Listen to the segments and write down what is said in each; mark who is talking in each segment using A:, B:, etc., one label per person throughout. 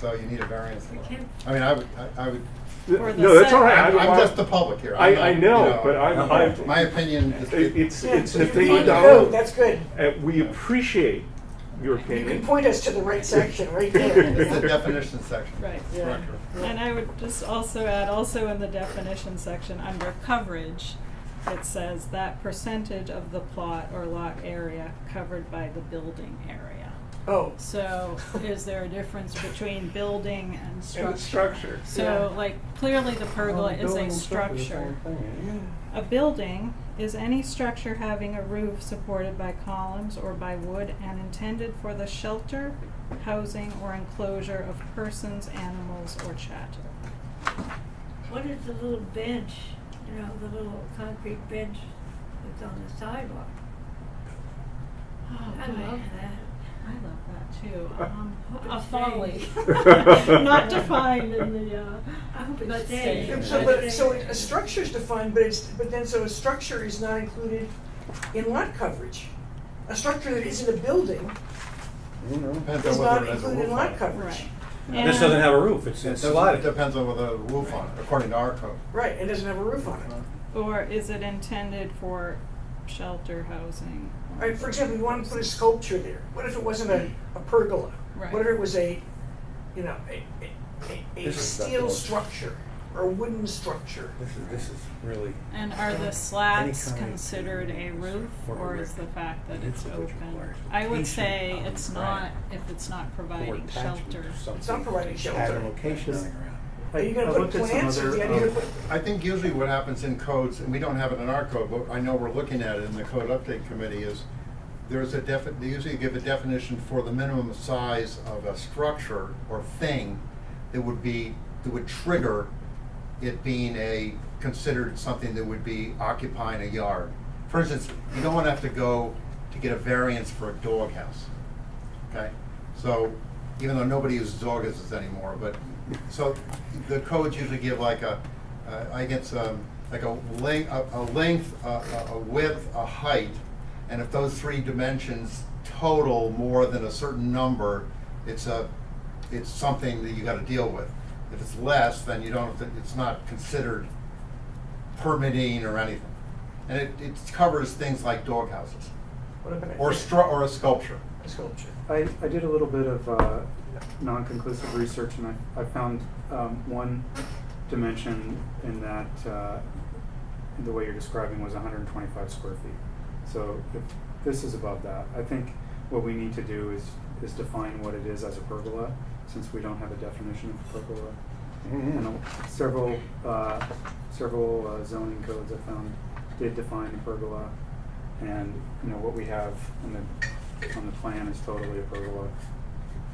A: so you need a variance.
B: We
A: for it.
B: can't-
A: I mean, I would, I- I would,
B: For the
C: No, that's all right.
B: set-
C: I
A: I'm
C: don't
A: I'm
C: want-
A: just the public here.
C: I,
A: I'm not,
C: I
A: you
C: know, but I'm, I'm.
A: My opinion is.
C: It- It's,
D: Yeah,
C: it's
D: you
C: the
D: can point
C: thing
D: to
C: down.
D: code, That's good.
C: And we appreciate your
D: You can
C: opinion.
D: point us to the right section, right there.
A: It's the definition section.
B: Right.
D: Yeah.
A: Correct.
B: And I would just also add, also in the definition section, under coverage, it says that percentage of the plot or lot area covered by the building area.
D: Oh,
B: So is there a difference between building and
C: And the
B: structure?
C: structure.
B: So
D: Yeah.
B: like clearly the pergola is a structure. A building is any structure having a roof supported by columns or by wood and intended for the shelter, housing, or enclosure of persons, animals, or chatter.
E: What is the little bench, you know, the little concrete bench that's on the sidewalk?
B: Oh,
E: I love that.
B: I love that too.
C: Uh,
B: Um,
E: hope
B: a
E: it
B: folly,
C: stays.
B: not defined in the. Uh,
E: I hope
B: But
E: it
B: stay.
E: stays.
D: so, but, so a structure's defined, but it's, but then, so a structure is not included in lot coverage. A structure that isn't a building
A: Depends
D: is
A: on whether
D: not
A: it has a
D: included in
A: roof on
D: lot
A: it.
D: coverage.
B: right.
F: This doesn't have a roof, it's
A: It
F: it's
A: doesn't-
F: slotted.
A: it depends on whether the roof on it, according to our code.
D: Right, it doesn't have a roof on it.
B: Or is it intended for shelter, housing? or-
D: All right, for example, you want to put a sculpture there. What if it wasn't a, a pergola?
B: Right.
D: What if it was a, you know, a, a- a, a
F: This is that
D: steel
F: one.
D: structure or a wooden structure?
F: This is, this is really,
B: And are the slats
F: kind of
B: considered a roof,
F: for a
B: or is
F: roof.
B: the fact that
F: And
B: it's
F: it's a
B: open?
F: large
B: I would
F: location
B: say
F: on
B: it's
F: the
B: not,
F: ground.
B: if it's not
F: or
B: providing
F: attachment
B: shelter.
F: or something.
D: It's not providing
F: Had
D: shelter.
F: a location
G: Just-
F: lying around.
D: Are you gonna
G: I
D: put
G: looked at some
D: plants or
G: other,
D: the idea
G: um,
D: to put-
A: I think usually what happens in codes, and we don't have it in our code, but I know we're looking at it in the code update committee, is there's a defi, they usually give a definition for the minimum size of a structure or thing that would be, that would trigger it being a, considered something that would be occupying a yard. For instance, you don't wanna have to go to get a variance for a doghouse. Okay, so, even though nobody uses Augustus anymore, but, so, the codes usually give like a, uh, I guess, um, like a length, a a length, a- a a width, a height, and if those three dimensions total more than a certain number, it's a, it's something that you gotta deal with. If it's less, then you don't, it's not considered permitting or anything. And it, it covers things like doghouses,
D: What about a-
A: or stru, or a sculpture.
D: a sculpture?
G: I, I did a little bit of uh, non-conclusive research, and I, I found um, one dimension in that uh, the way you're describing was 125 square feet. So if this is above that, I think what we need to do is is define what it is as a pergola, since we don't have a definition of pergola.
F: Mm-hmm.
G: And uh, several uh, several uh, zoning codes I found did define a pergola, and you know what we have in the on the plan is totally a pergola.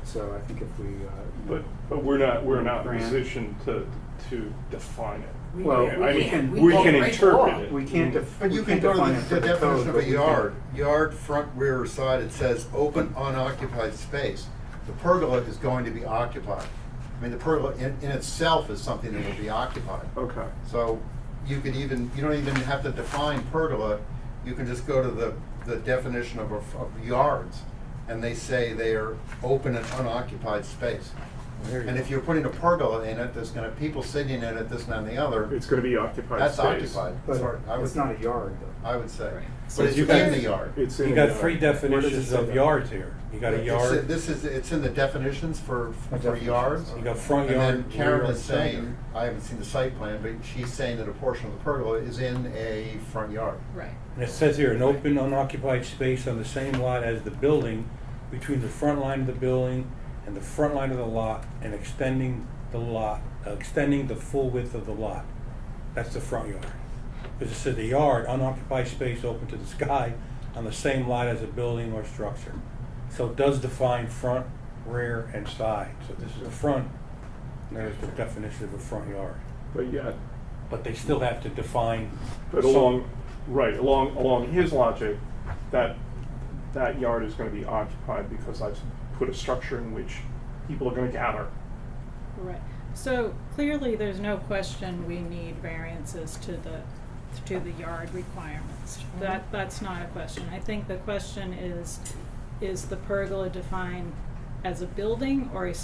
G: So I think if we, uh, you
C: But,
G: know,
C: but we're not, we're not in a
G: Grant.
C: position to, to define it.
D: We-
G: Well,
D: we
C: I mean,
D: can't-
C: we
D: can't
C: can
D: break the
C: interpret
D: law.
C: it.
G: we can't. Def-
A: But
G: we
A: you can
G: can't
A: go to
G: define it for
A: the, the
G: code,
A: definition of
G: but
A: a
G: we can-
A: yard, yard, front, rear, or side, it says open unoccupied space. The pergola is going to be occupied. I mean, the pergola in, in itself is something that will be occupied.
C: Okay.
A: So you could even, you don't even have to define pergola, you can just go to the, the definition of, a- of yards, and they say they are open and unoccupied space.
F: There you
A: And
F: go.
A: if you're putting a pergola in it, there's gonna, people sitting in it, this and that and the other,
C: It's gonna be occupied
A: that's
C: space.
A: occupied.
G: But
A: Sorry, I
G: it's
A: was-
G: not a yard, though.
A: I would say.
F: So
A: But it's
F: you got-
A: in the yard.
C: It's in
F: You
C: a
F: got
C: yard.
F: three definitions
G: say
F: of
G: that?
F: yards here. You got a
A: It's-
F: yard,
A: This is, it's in the definitions for, for
G: Definitions.
A: yards.
F: you got front
A: And then
F: yard, rear
A: Karen
F: yard,
A: is
F: side
A: saying,
F: yard.
A: I haven't seen the site plan, but she's saying that a portion of the pergola is in a front yard.
B: Right.
F: And it says here, an open unoccupied space on the same lot as the building between the front line of the building and the front line of the lot and extending the lot, uh, extending the full width of the lot. That's the front yard. Because it said the yard, unoccupied space open to the sky on the same lot as a building or structure. So it does define front, rear, and side. So this is the front, and there's the definition of a front yard.
C: But yet,
F: But they still have to define.
C: but
F: some-
C: along, right, along, along his logic, that, that yard is gonna be occupied because I've put a structure in which people are gonna gather.
B: Right. So clearly, there's no question we need variances to the, to the yard requirements. That, that's not a question. I think the question is, is the pergola defined as a building or a